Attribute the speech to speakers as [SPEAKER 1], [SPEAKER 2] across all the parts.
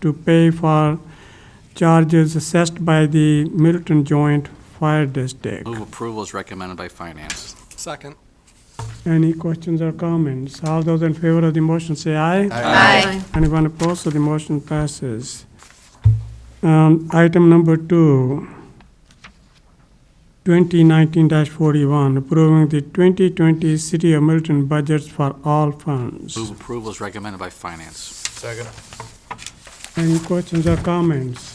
[SPEAKER 1] to pay for charges assessed by the Milton Joint Fire District.
[SPEAKER 2] Move approval is recommended by finance.
[SPEAKER 3] Second.
[SPEAKER 1] Any questions or comments? All those in favor of the motion say aye.
[SPEAKER 4] Aye.
[SPEAKER 1] Anyone opposed, so the motion passes. Um, Item number two, 2019-41, approving the 2020 City of Milton budgets for all funds.
[SPEAKER 2] Move approval is recommended by finance.
[SPEAKER 3] Second.
[SPEAKER 1] Any questions or comments?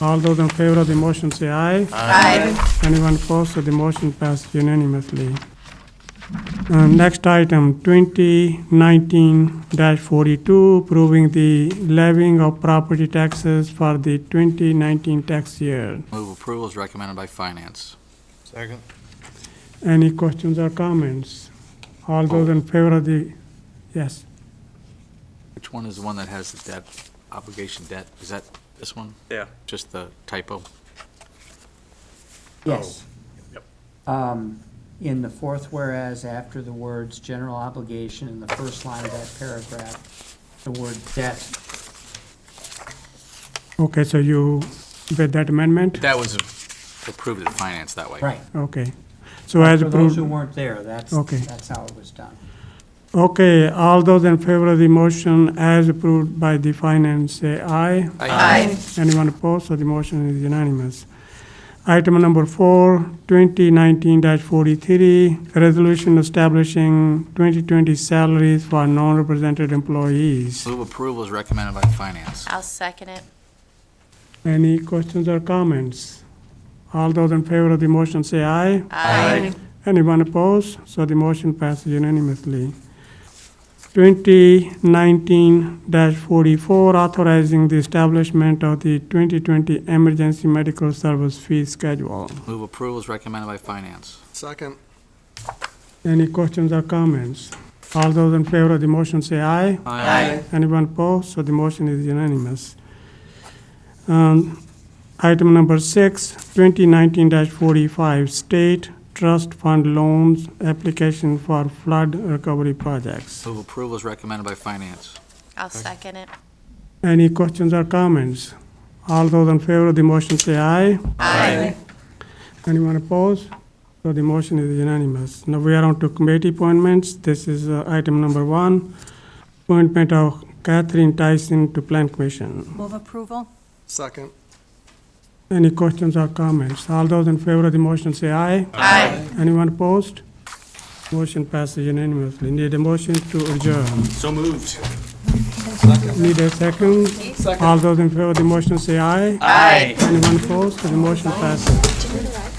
[SPEAKER 1] All those in favor of the motion say aye.
[SPEAKER 4] Aye.
[SPEAKER 1] Anyone opposed, so the motion passed unanimously. Uh, Next item, 2019-42, approving the levying of property taxes for the 2019 tax year.
[SPEAKER 2] Move approval is recommended by finance.
[SPEAKER 3] Second.
[SPEAKER 1] Any questions or comments? All those in favor of the, yes,
[SPEAKER 2] Which one is the one that has the debt, obligation debt? Is that this one?
[SPEAKER 5] Yeah.
[SPEAKER 2] Just the typo?
[SPEAKER 6] Yes. Um, In the fourth whereas, after the words "general obligation" in the first line of that paragraph, the word "debt"
[SPEAKER 1] okay, so you, with that amendment?
[SPEAKER 2] That was approved at finance that way.
[SPEAKER 6] Right.
[SPEAKER 1] Okay, so as
[SPEAKER 6] For those who
[SPEAKER 1] approved,
[SPEAKER 6] weren't there, that's,
[SPEAKER 1] Okay.
[SPEAKER 6] that's how it was done.
[SPEAKER 1] okay, all those in favor of the motion as approved by the finance, say aye.
[SPEAKER 4] Aye.
[SPEAKER 1] Anyone opposed, so the motion is unanimous. Item number four, 2019-43, resolution establishing 2020 salaries for non-represented employees.
[SPEAKER 2] Move approval is recommended by finance.
[SPEAKER 4] I'll second it.
[SPEAKER 1] Any questions or comments? All those in favor of the motion say aye.
[SPEAKER 4] Aye.
[SPEAKER 1] Anyone opposed? So the motion passes unanimously. 2019-44, authorizing the establishment of the 2020 Emergency Medical Service Fee Schedule.
[SPEAKER 2] Move approval is recommended by finance.
[SPEAKER 3] Second.
[SPEAKER 1] Any questions or comments? All those in favor of the motion say aye.
[SPEAKER 4] Aye.
[SPEAKER 1] Anyone opposed? So the motion is unanimous. Um, Item number six, 2019-45, State Trust Fund Loans Application for Flood Recovery Projects.
[SPEAKER 2] Move approval is recommended by finance.
[SPEAKER 4] I'll second it.
[SPEAKER 1] Any questions or comments? All those in favor of the motion say aye.
[SPEAKER 4] Aye.
[SPEAKER 1] Anyone opposed? So the motion is unanimous. Now we are on to committee appointments. This is uh, item number one, appointment of Catherine Tyson to Plan Commission.
[SPEAKER 7] Move approval?
[SPEAKER 3] Second.
[SPEAKER 1] Any questions or comments? All those in favor of the motion say aye.
[SPEAKER 4] Aye.
[SPEAKER 1] Anyone opposed? Motion passes unanimously. Need a motion to adjourn.
[SPEAKER 5] So moved.
[SPEAKER 1] Need a second? Second. All those in favor of the motion say aye.
[SPEAKER 5] Aye.
[SPEAKER 1] Anyone opposed? So the motion passes.